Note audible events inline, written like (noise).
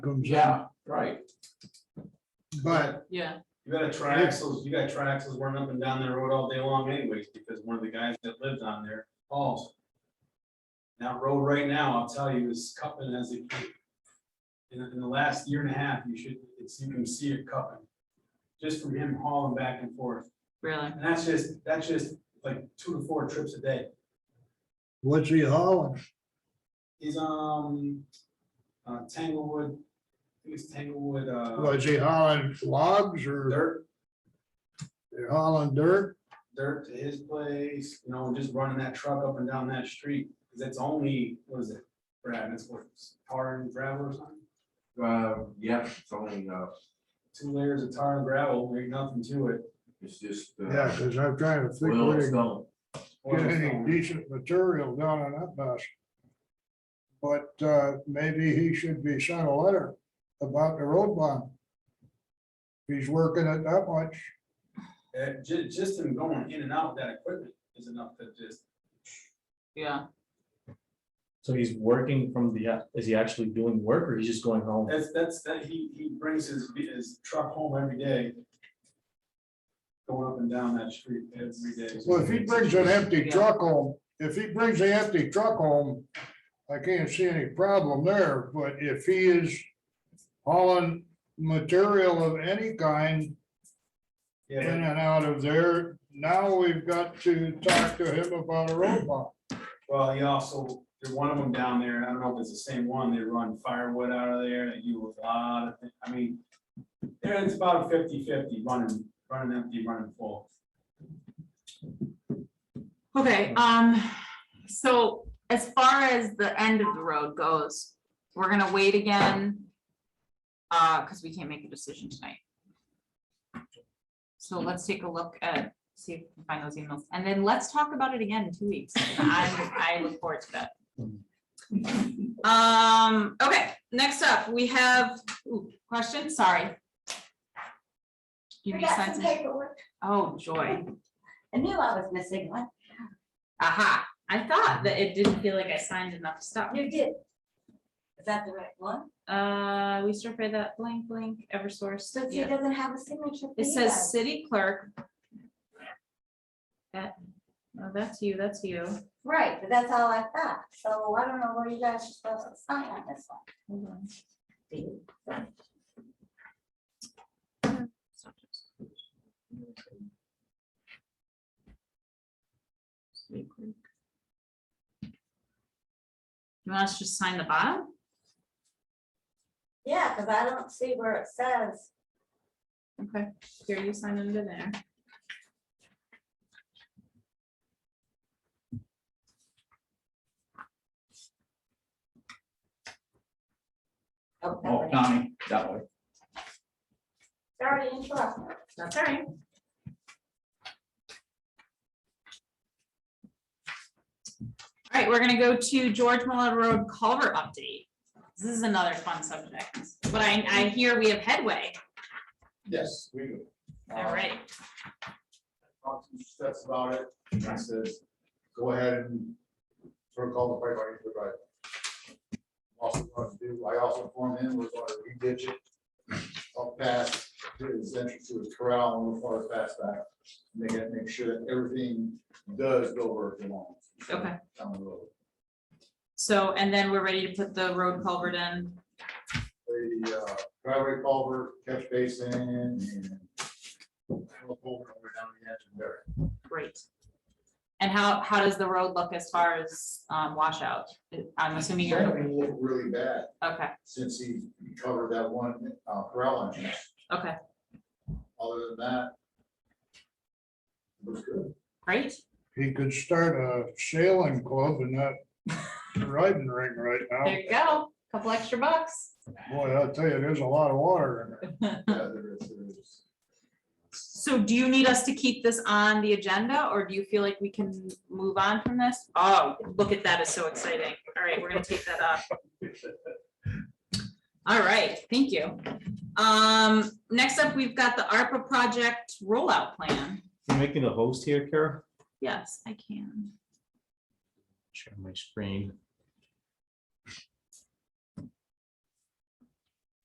comes out, Yeah, right. but Yeah, You got a triaxles, you got triaxles running up and down that road all day long anyways, because one of the guys that lived on there falls. That road right now, I'll tell you, is cupping as it. can. In, in the last year and a half, you should, it's, you can see it cupping. Just from him hauling back and forth. really. And that's just, that's just like two to four trips a day. what's he hauling? He's, um, uh, Tanglewood, I think it's Tanglewood, uh, Was he hauling logs or dirt, they're hauling dirt? dirt to his place, you know, just running that truck up and down that street. Cause it's only, what is it, Brad, it's what, tar and gravel or something? Uh, yeah, it's only, uh, Two layers of tar and gravel, ain't nothing to it. (laughs) it's just. uh, Yeah, because I'm trying to think Oil where and to stone. get any decent material down on that bus. But uh, maybe he should be sent a letter about the road bond. If He's working it that much. Uh, ju- just him going in and out with that equipment is enough to just, Yeah, So he's working from the, is he actually doing work or he's just going home? that's, that's, that, he, he brings his, his truck home every day. Going up and down that street every day. Well, if he brings an empty Yeah. truck home, if he brings the empty truck home, I can't see any problem there, but if he is hauling material of any kind in Yeah, and out of there, now we've got to talk to him about a road bond. well, he also, there's one of them down there, I don't know if it's the same one, they run firewood out of there, they do a lot of, thi- uh, I mean. There, it's about 50-50 running, running empty, running full. okay, um, so as far as the end of the road goes, we're gonna wait again. Uh, cause we can't make a decision tonight. So let's take a look at, see if we can find those emails, and then let's talk about it again in two weeks. I, I look forward to that. Um, okay, next up, we have, ooh, question, sorry. Give me We a got some sense, paperwork. oh, joy. I knew I was missing one. Aha, I thought that it didn't feel like I signed enough stuff. You did. Is that the right one? Uh, we still pay that blank, blank, Eversource. But she yeah. doesn't have a signature. for It you says guys. city clerk. That, no, that's you, that's you. Right, but that's all I thought. So I don't know where you guys are supposed to sign on this one. Hold on. City clerk. You want us to just sign the bottom? Yeah, because I don't see where it says. Okay, here you sign under there. Oh, that Oh, way. Tommy, that way. It's already in trust. That's all right. All right, we're gonna go to George Muller Road Culver update. This is another fun subject, but I, I hear we have headway. Yes, we do. All right, Talked to Steph about it, and I says, go ahead and sort of call the pipe line, but also want to do, I also informed him, we're going to re-ditch it up past his entrance to his corral and the far past that. Make it, make sure that everything does go where it belongs. okay, Down the road. so, and then we're ready to put the road culvert in. the uh, driveway culvert, catch basin, and we'll pull it over down the edge and bury it. Great. And how, how does the road look as far as um, washout? I'm assuming It's you're, gonna look really bad okay, since he covered that one uh, corral entrance. okay, Other than that, it looks good. great. He could start a sailing club in that riding ring right There now. you go, couple extra bucks. Boy, I'll tell you, there's a lot of water in there. Yeah, there is- there is. So do you need us to keep this on the agenda or do you feel like we can move on from this? Oh, look at that, it's so exciting. All right, we're gonna take that off. All right, thank you. Um, next up, we've got the ARPA project rollout plan. Can you make me the host here, Kara? Yes, I can. Share my screen.